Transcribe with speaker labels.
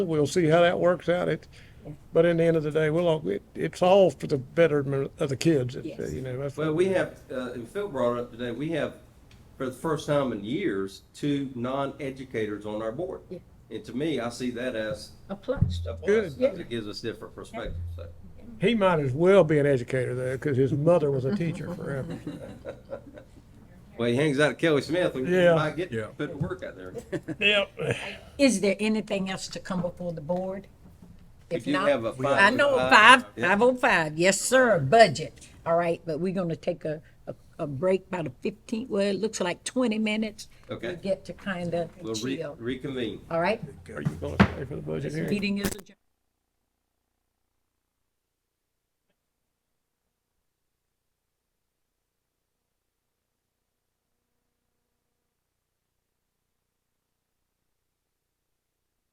Speaker 1: We'll see how that works out. It, but in the end of the day, we'll all, it, it's all for the betterment of the kids. It's, uh,
Speaker 2: Yes.
Speaker 1: You know, that's.
Speaker 3: Well, we have, uh, and Phil brought it up today, we have, for the first time in years, two non-educators on our board.
Speaker 2: Yeah.
Speaker 3: And to me, I see that as
Speaker 2: A plus.
Speaker 3: a plus,
Speaker 1: Good.
Speaker 3: because it gives us different perspectives, so.
Speaker 1: He might as well be an educator though, because his mother was a teacher forever.
Speaker 3: Well, he hangs out at Kelly Smith, we
Speaker 1: Yeah.
Speaker 3: might get,
Speaker 4: Yeah.
Speaker 3: put to work out there.
Speaker 1: Yep.
Speaker 2: Is there anything else to come before the board?
Speaker 3: We
Speaker 2: If
Speaker 3: do
Speaker 2: not,
Speaker 3: have a five
Speaker 2: I know,
Speaker 3: oh
Speaker 2: five,
Speaker 3: five.
Speaker 2: five oh five, yes, sir, budget. All right, but we're gonna take a, a, a break about a fifteen, well, it looks like twenty minutes. We
Speaker 3: Okay.
Speaker 2: get to kind of
Speaker 3: We'll re-
Speaker 2: chill,
Speaker 3: reconvene.
Speaker 2: all right?
Speaker 1: Are you going to stay for the budget
Speaker 2: This
Speaker 1: hearing?
Speaker 2: meeting is adjourned.